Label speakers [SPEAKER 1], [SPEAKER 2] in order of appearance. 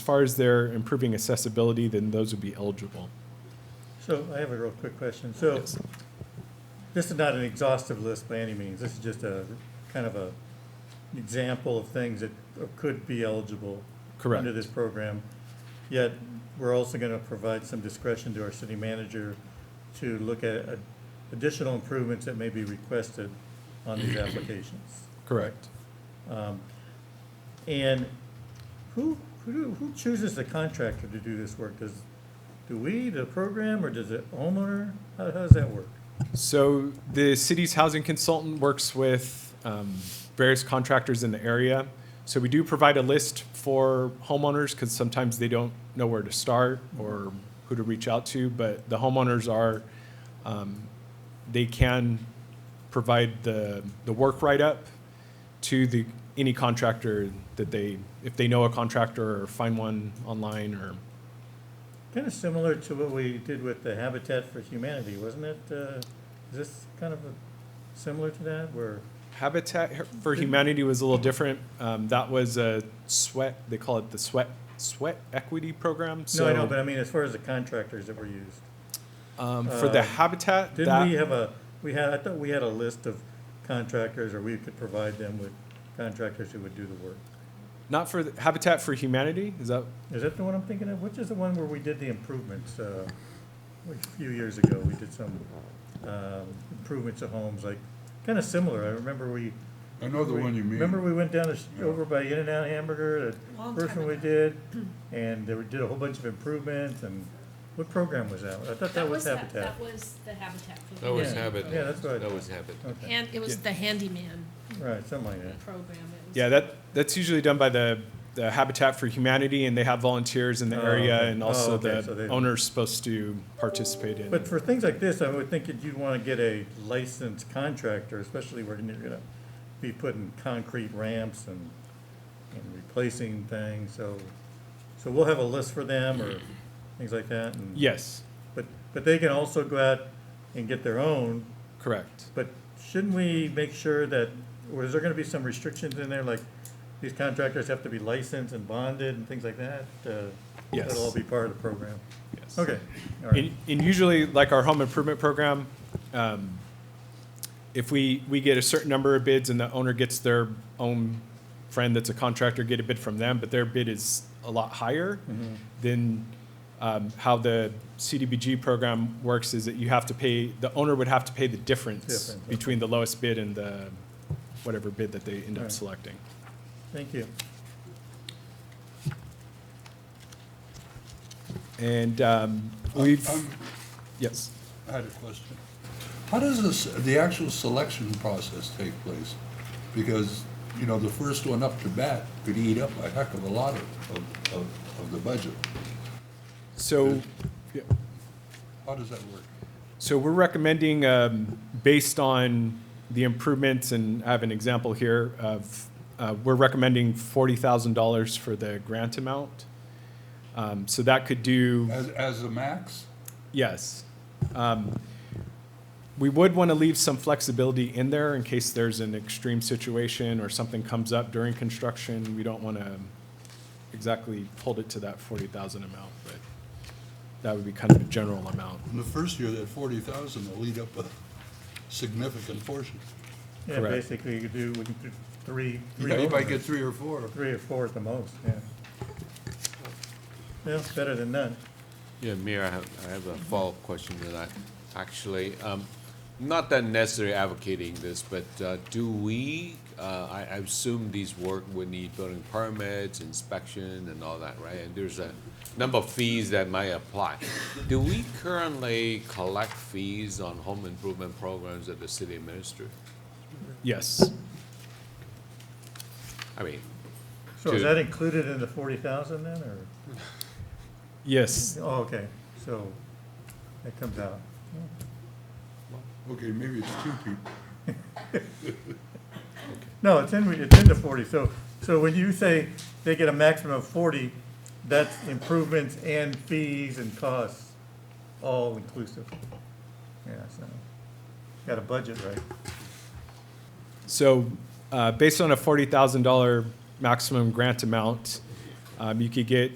[SPEAKER 1] far as they're improving accessibility, then those would be eligible.
[SPEAKER 2] So I have a real quick question. So
[SPEAKER 1] Yes.
[SPEAKER 2] this is not an exhaustive list by any means. This is just a, kind of a example of things that could be eligible
[SPEAKER 1] Correct.
[SPEAKER 2] under this program. Yet, we're also gonna provide some discretion to our city manager to look at ad- additional improvements that may be requested on these applications.
[SPEAKER 1] Correct.
[SPEAKER 2] And who, who, do- who chooses the contractor to do this work? Does, do we, the program, or does it homeowner? How, how does that work?
[SPEAKER 1] So the city's housing consultant works with um, various contractors in the area. So we do provide a list for homeowners because sometimes they don't know where to start or who to reach out to. But the homeowners are, um, they can provide the, the work write-up to the, any contractor that they, if they know a contractor or find one online or,
[SPEAKER 2] Kind of similar to what we did with the Habitat for Humanity, wasn't it? Uh, Is this kind of a- similar to that, where,
[SPEAKER 1] Habitat for Humanity was a little different. Um, that was a sweat. They call it the sweat sweat equity program. So
[SPEAKER 2] no, I know, but I mean, as far as the contractors that were used.
[SPEAKER 1] um, for the
[SPEAKER 2] uh,
[SPEAKER 1] habitat, that,
[SPEAKER 2] Didn't we have a, we had, I thought we had a list of contractors, or we could provide them with contractors who would do the work.
[SPEAKER 1] not for the, Habitat for Humanity. Is that
[SPEAKER 2] Is that the one I'm thinking of? Which is the one where we did the improvements, uh, a few years ago, we did some, um, improvements of homes, like, kind of similar. I remember we,
[SPEAKER 3] I know the
[SPEAKER 2] We-
[SPEAKER 3] one you mean.
[SPEAKER 2] Remember we went down to, s-
[SPEAKER 3] Yeah.
[SPEAKER 2] over by In-N-Out Hamburger,
[SPEAKER 4] Long
[SPEAKER 2] the first
[SPEAKER 4] time
[SPEAKER 2] one we did, and they were- did a whole bunch of improvements, and what program was that? I thought that was
[SPEAKER 4] ha-
[SPEAKER 2] Habitat.
[SPEAKER 4] That was the Habitat. for
[SPEAKER 5] That was
[SPEAKER 4] Humanity.
[SPEAKER 2] Yeah.
[SPEAKER 5] habit.
[SPEAKER 2] Yeah, that's right.
[SPEAKER 5] That was habit.
[SPEAKER 2] Okay,
[SPEAKER 4] And it was
[SPEAKER 1] Yeah.
[SPEAKER 4] the handyman
[SPEAKER 2] right, something like that.
[SPEAKER 4] program. It was-
[SPEAKER 1] yeah? That that's usually done by the, the Habitat for Humanity, and they have volunteers in the
[SPEAKER 2] Oh,
[SPEAKER 1] area,
[SPEAKER 2] okay.
[SPEAKER 1] and
[SPEAKER 2] Oh,
[SPEAKER 1] also
[SPEAKER 2] okay,
[SPEAKER 1] the
[SPEAKER 2] so they-
[SPEAKER 1] owner's supposed to participate in.
[SPEAKER 2] But for things like this, I would think that you'd want to get a licensed contractor, especially where you're gonna be putting concrete ramps and, and replacing things, so, so we'll have a list for them or things like that, and.
[SPEAKER 1] yes,
[SPEAKER 2] But, but they can also go out and get their own,
[SPEAKER 1] correct.
[SPEAKER 2] but shouldn't we make sure that, or is there gonna be some restrictions in there, like these contractors have to be licensed and bonded and things like that? Uh,
[SPEAKER 1] Yes.
[SPEAKER 2] That'll all be part of the program.
[SPEAKER 1] Yes.
[SPEAKER 2] Okay, all right.
[SPEAKER 1] And, and usually, like our home improvement program, um, if we, we get a certain number of bids and the owner gets their own friend that's a contractor, get a bid from them, but their bid is a lot higher, then, um, how the CDBG program works is that you have to pay, the owner would have to pay the difference
[SPEAKER 2] Difference, okay.
[SPEAKER 1] between the lowest bid and the, whatever bid that they end up
[SPEAKER 2] Right.
[SPEAKER 1] selecting.
[SPEAKER 2] Thank you.
[SPEAKER 1] And, um, we've,
[SPEAKER 3] Um,
[SPEAKER 1] yes.
[SPEAKER 3] I had a question. How does this, the actual selection process take place? Because, you know, the first one up to bat could eat up a heck of a lot of, of, of- of the budget.
[SPEAKER 1] So,
[SPEAKER 3] uh,
[SPEAKER 1] yeah.
[SPEAKER 3] How does that work?
[SPEAKER 1] So we're recommending, um, based on the improvements, and I have an example here of, uh, we're recommending forty thousand dollars for the grant amount. Um, so that could do,
[SPEAKER 3] As, as a max?
[SPEAKER 1] yes. Um, we would want to leave some flexibility in there in case there's an extreme situation or something comes up during construction. We don't want to exactly hold it to that forty thousand amount, but that would be kind of a general amount.
[SPEAKER 3] In the first year, that forty thousand will eat up a significant portion.
[SPEAKER 2] Yeah,
[SPEAKER 1] Correct.
[SPEAKER 2] basically, you could do, we can do three, three.
[SPEAKER 3] Yeah, you might
[SPEAKER 2] homeowners.
[SPEAKER 3] get three or four.
[SPEAKER 2] Three or four at the most, yeah. Yeah, better than none.
[SPEAKER 5] Yeah, Mayor, I have, I have a follow-up question that I, actually, um, not that necessarily advocating this, but, uh, do we, uh, I, I assume these work would need building permits, inspection and all that, right? And there's a number of fees that might apply. Do we currently collect fees on home improvement programs that the city administers?
[SPEAKER 1] Yes.
[SPEAKER 5] I mean,
[SPEAKER 2] So is
[SPEAKER 5] Two.
[SPEAKER 2] that included in the forty thousand then, or?
[SPEAKER 1] Yes.
[SPEAKER 2] Oh, okay, so that comes out.
[SPEAKER 3] Okay, maybe it's two people.
[SPEAKER 2] No, it's in, it's in the forty, so, so when you say they get a maximum of forty, that's improvements and fees and costs, all inclusive. Yeah, so, got a budget, right?
[SPEAKER 1] So, uh, based on a forty thousand dollar maximum grant amount, um, you could get